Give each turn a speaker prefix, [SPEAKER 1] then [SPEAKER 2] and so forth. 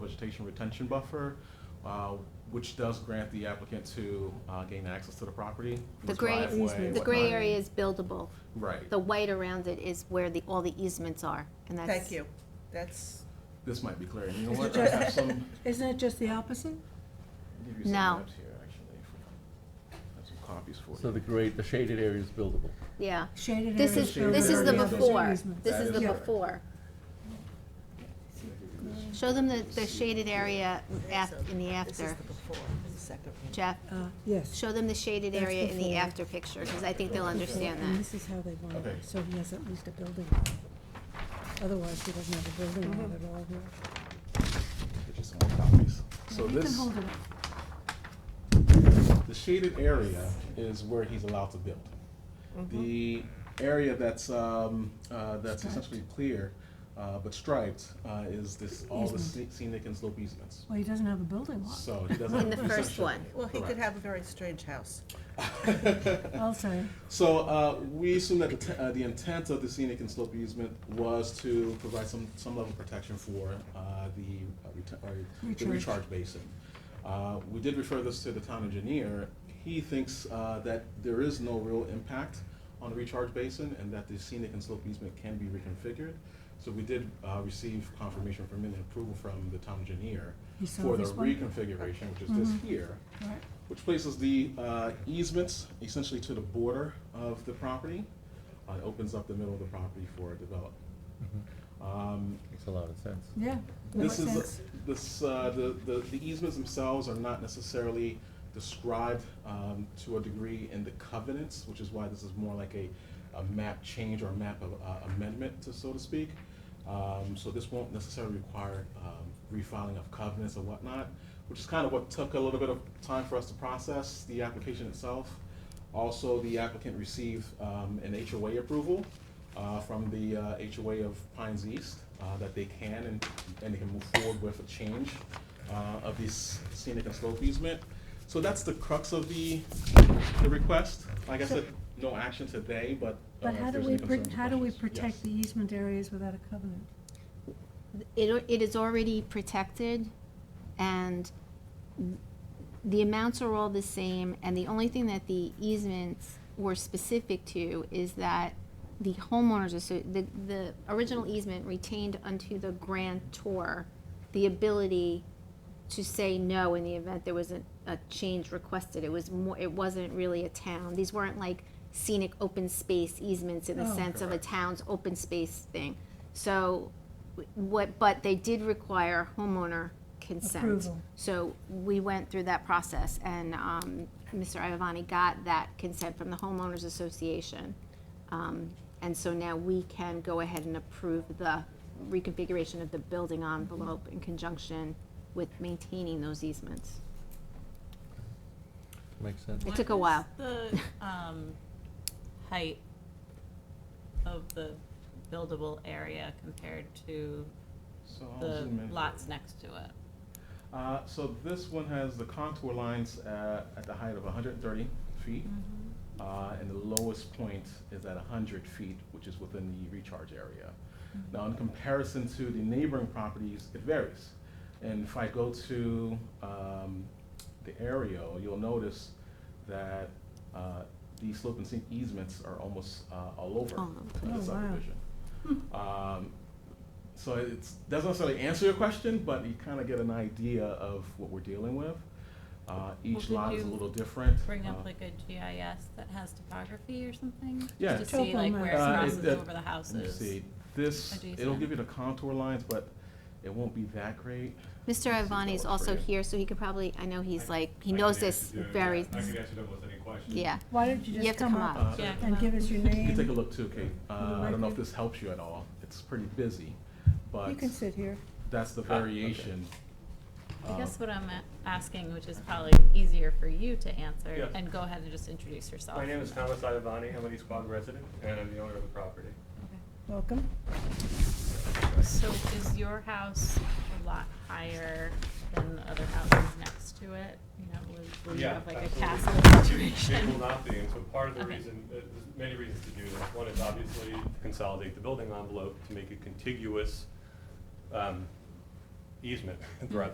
[SPEAKER 1] vegetation retention buffer, uh, which does grant the applicant to uh, gain access to the property.
[SPEAKER 2] The
[SPEAKER 1] its
[SPEAKER 2] gray,
[SPEAKER 1] driveway,
[SPEAKER 2] the gray
[SPEAKER 1] whatnot.
[SPEAKER 2] area is buildable.
[SPEAKER 1] Right.
[SPEAKER 2] The white around it is where the, all the easements are, and that's.
[SPEAKER 3] Thank you. That's,
[SPEAKER 1] This might be clear. And you know
[SPEAKER 4] Is
[SPEAKER 1] what?
[SPEAKER 4] it
[SPEAKER 1] I have
[SPEAKER 4] just-
[SPEAKER 1] some, I'll
[SPEAKER 4] Isn't it just the opposite?
[SPEAKER 1] give you some
[SPEAKER 2] No.
[SPEAKER 1] maps here, actually. if- I have some copies for you.
[SPEAKER 5] So the grade, the shaded area is buildable.
[SPEAKER 2] Yeah.
[SPEAKER 4] Shaded
[SPEAKER 2] This
[SPEAKER 4] areas
[SPEAKER 2] is,
[SPEAKER 1] Shaded
[SPEAKER 2] this is the
[SPEAKER 1] area.
[SPEAKER 4] buildable,
[SPEAKER 2] before.
[SPEAKER 4] easements.
[SPEAKER 2] This
[SPEAKER 1] That
[SPEAKER 2] is
[SPEAKER 1] is
[SPEAKER 2] the
[SPEAKER 1] correct.
[SPEAKER 2] before. Show them the, the shaded area af, in the
[SPEAKER 3] this is
[SPEAKER 2] after,
[SPEAKER 3] the before, the second one.
[SPEAKER 2] Jeff.
[SPEAKER 4] Uh, Yes,
[SPEAKER 2] Show them the shaded
[SPEAKER 4] That's
[SPEAKER 2] area in the
[SPEAKER 4] before.
[SPEAKER 2] after picture, because I think they'll understand
[SPEAKER 4] and
[SPEAKER 2] that.
[SPEAKER 4] this is how they want
[SPEAKER 1] Okay.
[SPEAKER 4] it, so he has at least a building. Otherwise, he doesn't have a building on it at all here.
[SPEAKER 1] Get you some more copies. So
[SPEAKER 4] You
[SPEAKER 1] Mm-hmm.
[SPEAKER 4] can
[SPEAKER 1] this,
[SPEAKER 4] hold it up.
[SPEAKER 1] the shaded area is where he's allowed to build. The area that's, um, uh, that's
[SPEAKER 4] Mm-hmm. Striped.
[SPEAKER 1] essentially clear, uh, but striped, uh, is this, all the
[SPEAKER 4] Easement.
[SPEAKER 1] sce- scenic and slope easements.
[SPEAKER 4] Well, he doesn't have a building lot.
[SPEAKER 1] So he doesn't.
[SPEAKER 2] In the first
[SPEAKER 1] essentially-
[SPEAKER 2] one.
[SPEAKER 3] Well, he could
[SPEAKER 1] Correct.
[SPEAKER 3] have a very strange house.
[SPEAKER 4] I'll say,
[SPEAKER 1] So uh, we assume that the, te- uh, the intent of the scenic and slope easement was to provide some, some level of protection for uh, the, uh, reta- or the
[SPEAKER 4] Recharge.
[SPEAKER 1] recharge basin. Uh, we did refer this to the town engineer. He thinks uh, that there is no real impact on the recharge basin and that the scenic and slope easement can be reconfigured. So we did uh, receive confirmation from and approval from the town engineer
[SPEAKER 4] He saw
[SPEAKER 1] for the
[SPEAKER 4] this one? Mm-hmm.
[SPEAKER 1] reconfiguration, which is this here
[SPEAKER 4] right,
[SPEAKER 1] which places the uh, easements essentially to the border of the property. Uh, It opens up the middle of the property for development. Um,
[SPEAKER 5] Makes a lot of sense.
[SPEAKER 4] yeah.
[SPEAKER 1] This
[SPEAKER 4] Makes
[SPEAKER 1] is,
[SPEAKER 4] sense.
[SPEAKER 1] this, uh, the the the easements themselves are not necessarily described um, to a degree in the covenants, which is why this is more like a, a map change or a map of- uh, amendment, to- so to speak. Um, So this won't necessarily require um, refiling of covenants or whatnot, which is kind of what took a little bit of time for us to process the application itself. Also, the applicant received um, an HOA approval uh, from the uh, HOA of Pines East uh, that they can and, and they can move forward with a change uh, of this scenic and slope easement. So that's the crux of the, the request. Like I said, no action today, but. uh,
[SPEAKER 4] But
[SPEAKER 1] if
[SPEAKER 4] how do
[SPEAKER 1] there's
[SPEAKER 4] we,
[SPEAKER 1] any
[SPEAKER 4] pro-
[SPEAKER 1] concerns or
[SPEAKER 4] how do we
[SPEAKER 1] questions, yes.
[SPEAKER 4] protect the easement areas without a covenant?
[SPEAKER 2] It, it is already protected, and the amounts are all the same, and the only thing that the easements were specific to is that the homeowners, asso- the, the original easement retained unto the grantor the ability to say no in the event there was a, a change requested. It was more, it wasn't really a town. These weren't like scenic open space easements in the
[SPEAKER 4] Oh.
[SPEAKER 2] sense of a
[SPEAKER 1] Correct.
[SPEAKER 2] town's open space thing. So, w- what, but they did require homeowner consent.
[SPEAKER 4] Approval.
[SPEAKER 2] So we went through that process, and um, Mr. Iavani got that consent from the homeowners association. Um, And so now we can go ahead and approve the reconfiguration of the building envelope in conjunction with maintaining those easements.
[SPEAKER 5] Makes sense.
[SPEAKER 2] It took a while.
[SPEAKER 6] What is the, um, height of the buildable area compared to
[SPEAKER 1] So I'll
[SPEAKER 6] the
[SPEAKER 1] zoom in here.
[SPEAKER 6] lots next to it?
[SPEAKER 1] Uh, so this one has the contour lines at, at the height of hundred and thirty feet. Uh, and the lowest point is at hundred feet, which is within the recharge area. Now, in comparison to the neighboring properties, it varies. And if I go to, um, the aerial, you'll notice that, uh, the slope and sink easements are almost, uh, all over
[SPEAKER 2] All over.
[SPEAKER 1] uh,
[SPEAKER 4] Oh, wow.
[SPEAKER 1] the subdivision.
[SPEAKER 6] Hmm.
[SPEAKER 1] Um, so it doesn't necessarily answer your question, but you kind of get an idea of what we're dealing with. Uh, each
[SPEAKER 6] Well,
[SPEAKER 1] lot
[SPEAKER 6] could
[SPEAKER 1] is a
[SPEAKER 6] you
[SPEAKER 1] little different.
[SPEAKER 6] Bring
[SPEAKER 1] Uh,
[SPEAKER 6] up like a GIS that has topography or something?
[SPEAKER 1] Yeah.
[SPEAKER 6] To see like where
[SPEAKER 1] Uh,
[SPEAKER 6] it
[SPEAKER 1] it-
[SPEAKER 6] crosses
[SPEAKER 1] that-
[SPEAKER 6] over the
[SPEAKER 1] Let me
[SPEAKER 6] houses?
[SPEAKER 1] see, this, it'll
[SPEAKER 6] adjacent.
[SPEAKER 1] give you the contour lines, but it won't be that great.
[SPEAKER 2] Mr. Iavani is
[SPEAKER 1] Works for
[SPEAKER 2] also
[SPEAKER 1] you.
[SPEAKER 2] here, so he could probably, I know he's like, he
[SPEAKER 7] I
[SPEAKER 2] knows
[SPEAKER 7] can
[SPEAKER 2] this
[SPEAKER 7] answer- yeah,
[SPEAKER 2] very,
[SPEAKER 7] yeah, I can answer them with any question.
[SPEAKER 2] yeah.
[SPEAKER 4] Why don't
[SPEAKER 2] You
[SPEAKER 4] you
[SPEAKER 2] have
[SPEAKER 4] just
[SPEAKER 2] to
[SPEAKER 4] come
[SPEAKER 2] come
[SPEAKER 4] up
[SPEAKER 1] Uh,
[SPEAKER 6] Ah, Yeah, Mm-hmm. come
[SPEAKER 4] and
[SPEAKER 6] up.
[SPEAKER 4] give us your
[SPEAKER 1] You can take a
[SPEAKER 4] name?
[SPEAKER 1] look too, Kate. Uh, I don't know if this helps you at all. It's pretty busy,
[SPEAKER 4] You
[SPEAKER 1] but
[SPEAKER 4] can sit here.
[SPEAKER 1] that's the
[SPEAKER 5] Ah, okay.
[SPEAKER 1] variation.
[SPEAKER 6] I
[SPEAKER 1] Uh,
[SPEAKER 6] guess what I'm a- asking, which is probably easier for you to answer,
[SPEAKER 7] Yeah.
[SPEAKER 6] and go ahead and just introduce yourself.
[SPEAKER 7] My name is Thomas Iavani, I'm an East Quogue resident, and I'm the owner of the property.
[SPEAKER 4] Welcome.
[SPEAKER 6] So is your house a lot higher than the other houses next to it? You know, will- will you
[SPEAKER 7] Yeah,
[SPEAKER 6] have like a
[SPEAKER 7] absolutely.
[SPEAKER 6] castle
[SPEAKER 7] It
[SPEAKER 6] situation?
[SPEAKER 7] will not be, and so part of the
[SPEAKER 6] Okay.
[SPEAKER 7] reason, uh, there's many reasons to do this. One is obviously to consolidate the building envelope to make it contiguous um, easement throughout